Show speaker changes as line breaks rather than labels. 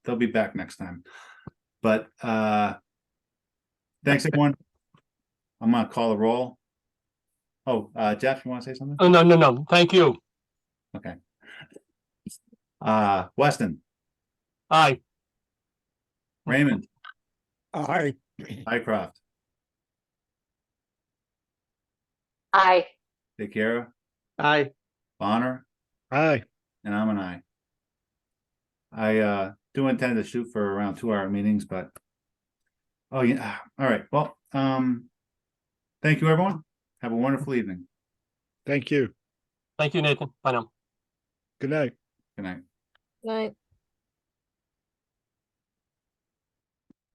they'll be back next time. But uh thanks everyone. I'm gonna call the roll. Oh, uh Jeff, you wanna say something?
Oh, no, no, no. Thank you.
Uh Weston,
Aye.
Raymond,
Aye.
Hycroft,
Aye.
DeCara,
Aye.
Bonner,
Aye.
and I'm an I. I uh do intend to shoot for around two hour meetings, but oh yeah, all right, well, um thank you, everyone. Have a wonderful evening.
Thank you.
Thank you, Nathan. Bye now.
Good night.
Good night.
Night.